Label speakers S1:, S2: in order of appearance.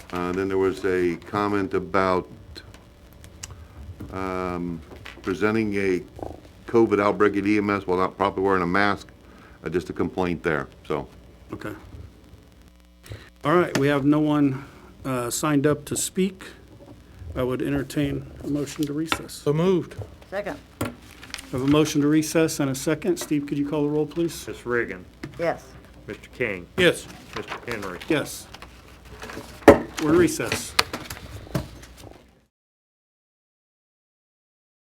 S1: Uh, Then there was a comment about um, presenting a COVID outbreak at EMS while not properly wearing a mask, Uh, just a complaint there, so.
S2: Okay. All right, we have no one uh, signed up to speak. I would entertain a motion to recess.
S3: So moved.
S4: Second,
S2: I have a motion to recess and a second. Steve, could you call the roll, please?
S5: Ms. Reagan,
S4: yes.
S5: Mr. King,
S3: Yes.
S5: Mr. Henry.
S2: Yes. We're in recess.